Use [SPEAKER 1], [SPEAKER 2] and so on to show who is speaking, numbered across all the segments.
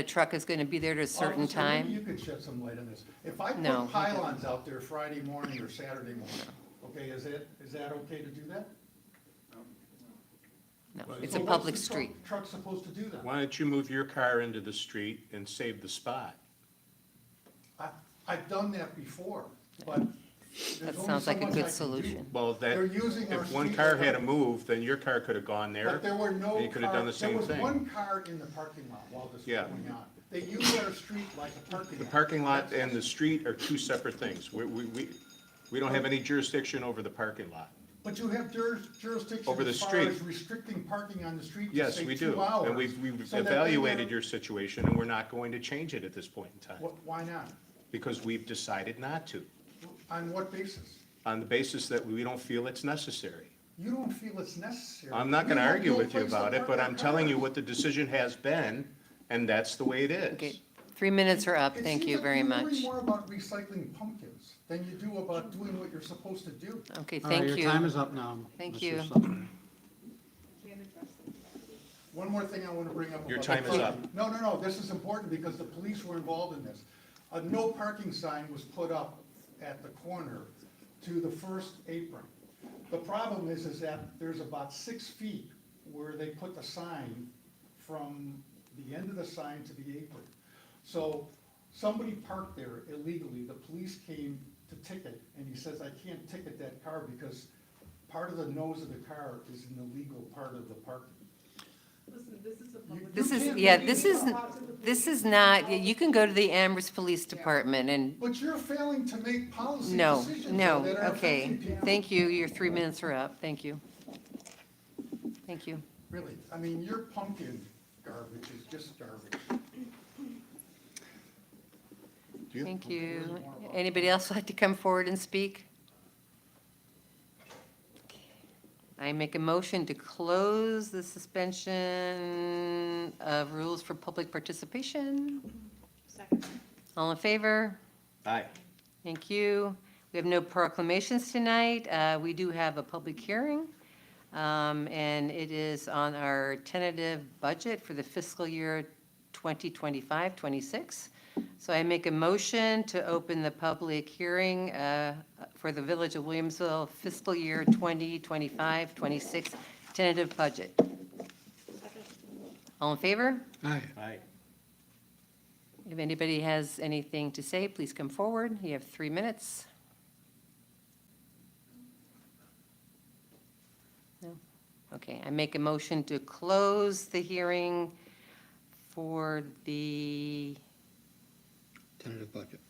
[SPEAKER 1] The truck is going to be there at a certain
[SPEAKER 2] Officer, maybe
[SPEAKER 1] time?
[SPEAKER 2] You could shed some light on this. If I
[SPEAKER 1] No,
[SPEAKER 2] put
[SPEAKER 1] he
[SPEAKER 2] pylons out there Friday morning or Saturday morning, okay, is it, is that okay to do that?
[SPEAKER 1] No,
[SPEAKER 2] So
[SPEAKER 1] it's a
[SPEAKER 2] what's
[SPEAKER 1] public
[SPEAKER 2] the truck-
[SPEAKER 1] street.
[SPEAKER 2] Truck supposed to do that?
[SPEAKER 3] Why don't you move your car into the street and save the spot?
[SPEAKER 2] I, I've done that before, but there's
[SPEAKER 1] That
[SPEAKER 2] only
[SPEAKER 1] sounds
[SPEAKER 2] so
[SPEAKER 1] like a
[SPEAKER 2] much I
[SPEAKER 1] good
[SPEAKER 2] can
[SPEAKER 1] solution.
[SPEAKER 2] do.
[SPEAKER 3] Well, that,
[SPEAKER 2] They're using our
[SPEAKER 3] if one
[SPEAKER 2] street
[SPEAKER 3] car
[SPEAKER 2] light.
[SPEAKER 3] had to move, then your car could have gone there.
[SPEAKER 2] But there were no
[SPEAKER 3] and You could have
[SPEAKER 2] car-
[SPEAKER 3] done the same
[SPEAKER 2] There was
[SPEAKER 3] thing.
[SPEAKER 2] one car in the parking lot while this was
[SPEAKER 3] Yeah.
[SPEAKER 2] going on. They used our street like a parking lot.
[SPEAKER 3] Parking lot and the street are two separate things. We, we, we, we don't have any jurisdiction over the parking lot.
[SPEAKER 2] But you have jur- jurisdiction
[SPEAKER 3] Over the
[SPEAKER 2] as far
[SPEAKER 3] street.
[SPEAKER 2] as restricting parking on the street to
[SPEAKER 3] Yes,
[SPEAKER 2] say
[SPEAKER 3] we
[SPEAKER 2] two
[SPEAKER 3] do.
[SPEAKER 2] hours.
[SPEAKER 3] And we've, we've
[SPEAKER 2] so that they never-
[SPEAKER 3] evaluated your situation and we're not going to change it at this point in time
[SPEAKER 2] Wh- Why not?
[SPEAKER 3] because we've decided not to
[SPEAKER 2] On what basis?
[SPEAKER 3] on the basis that we don't feel it's necessary.
[SPEAKER 2] You don't feel it's necessary.
[SPEAKER 3] I'm not gonna
[SPEAKER 2] have
[SPEAKER 3] argue
[SPEAKER 2] no
[SPEAKER 3] with you
[SPEAKER 2] place to
[SPEAKER 3] about it,
[SPEAKER 2] park
[SPEAKER 3] but
[SPEAKER 2] our
[SPEAKER 3] I'm telling you
[SPEAKER 2] cars.
[SPEAKER 3] what the decision has been and that's the way it is.
[SPEAKER 1] Okay, three minutes are up.
[SPEAKER 2] It
[SPEAKER 1] Thank
[SPEAKER 2] seems
[SPEAKER 1] you
[SPEAKER 2] like
[SPEAKER 1] very
[SPEAKER 2] you worry
[SPEAKER 1] much.
[SPEAKER 2] more about recycling pumpkins than you do about doing what you're supposed to do.
[SPEAKER 1] Okay,
[SPEAKER 4] All right,
[SPEAKER 1] thank
[SPEAKER 4] Your time
[SPEAKER 1] you.
[SPEAKER 4] is up now.
[SPEAKER 1] Thank
[SPEAKER 4] Mr.
[SPEAKER 1] you.
[SPEAKER 4] Sutton.
[SPEAKER 2] One more thing I want to bring up.
[SPEAKER 3] Your
[SPEAKER 2] about
[SPEAKER 3] time
[SPEAKER 2] the
[SPEAKER 3] is
[SPEAKER 2] parking. No, no, no, this is important because the police were involved in this. A no parking sign was put up at the corner to the first apron. The problem is, is that there's about six feet where they put the sign from the end of the sign to the apron. So somebody parked there illegally, the police came to ticket, and he says, I can't ticket that car because part of the nose of the car is in the legal part of the parking.
[SPEAKER 5] Listen, this is a public.
[SPEAKER 1] This
[SPEAKER 2] You
[SPEAKER 1] is,
[SPEAKER 2] can't
[SPEAKER 1] yeah,
[SPEAKER 2] make
[SPEAKER 1] this
[SPEAKER 2] me
[SPEAKER 1] is, this is not, you can go to the Amherst Police Department and,
[SPEAKER 2] But you're failing to make policy
[SPEAKER 1] no,
[SPEAKER 2] decisions
[SPEAKER 1] no,
[SPEAKER 2] that are
[SPEAKER 1] okay.
[SPEAKER 2] affecting people.
[SPEAKER 1] Thank you. Your three minutes are up. Thank you. Thank you.
[SPEAKER 2] Really, I mean, your pumpkin garbage is just garbage.
[SPEAKER 3] Yeah.
[SPEAKER 1] Thank you. Anybody else like to come forward and speak? I make a motion to close the suspension of rules for public participation.
[SPEAKER 5] Second.
[SPEAKER 1] All in favor?
[SPEAKER 3] Aye.
[SPEAKER 1] Thank you. We have no proclamations tonight. Uh, We do have a public hearing, um, and it is on our tentative budget for the fiscal year 2025, 26. So I make a motion to open the public hearing uh, for the Village of Williamsville fiscal year 2025, 26 tentative budget. All in favor?
[SPEAKER 4] Aye.
[SPEAKER 3] Aye.
[SPEAKER 1] If anybody has anything to say, please come forward. You have three minutes. No? Okay, I make a motion to close the hearing for the,
[SPEAKER 4] Tentative budget.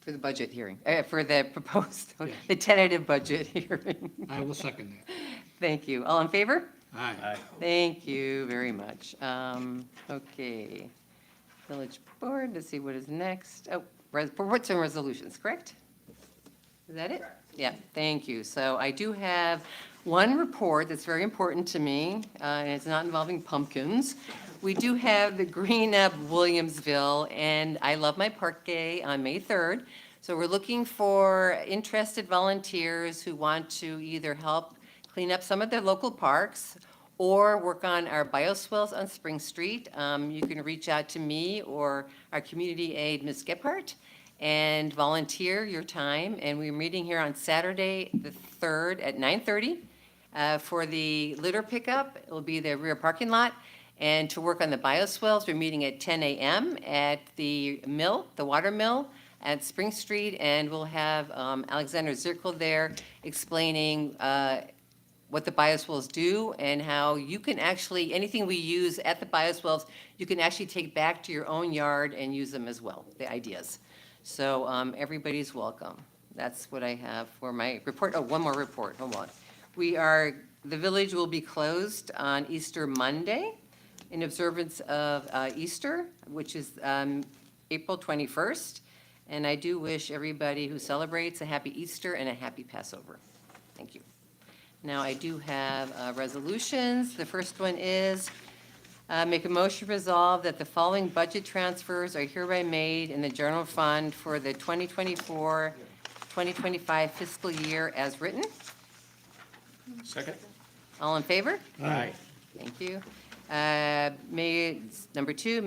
[SPEAKER 1] for the budget hearing, eh, for the proposed,
[SPEAKER 4] Yes.
[SPEAKER 1] the tentative budget hearing.
[SPEAKER 4] I will second that.
[SPEAKER 1] Thank you. All in favor?
[SPEAKER 4] Aye.
[SPEAKER 1] Thank you very much. Um, Okay. Village Board, let's see what is next. Oh, res- reports and resolutions, correct? Is that it? Yeah, thank you. So I do have one report that's very important to me, uh, and it's not involving pumpkins. We do have the Green Up Williamsville and I Love My Park Day on May 3rd. So we're looking for interested volunteers who want to either help clean up some of their local parks or work on our bioswales on Spring Street. Um, You can reach out to me or our community aide, Ms. Gephardt, and volunteer your time. And we're meeting here on Saturday, the 3rd, at 9:30 uh, for the litter pickup. It'll be the rear parking lot. And to work on the bioswales, we're meeting at 10 a.m. at the mill, the water mill at Spring Street. And we'll have um, Alexander Zirkel there explaining uh, what the bioswales do and how you can actually, anything we use at the bioswales, you can actually take back to your own yard and use them as well, the ideas. So um, everybody's welcome. That's what I have for my report. Oh, one more report, hold on. We are, the village will be closed on Easter Monday in observance of uh, Easter, which is um, April 21st. And I do wish everybody who celebrates a happy Easter and a happy Passover. Thank you. Now, I do have uh, resolutions. The first one is, uh, make a motion resolve that the following budget transfers are hereby made in the general fund for the 2024, 2025 fiscal year as written.
[SPEAKER 3] Second?
[SPEAKER 1] All in favor?
[SPEAKER 3] Aye.
[SPEAKER 1] Thank you. Uh, Uh, May, number two,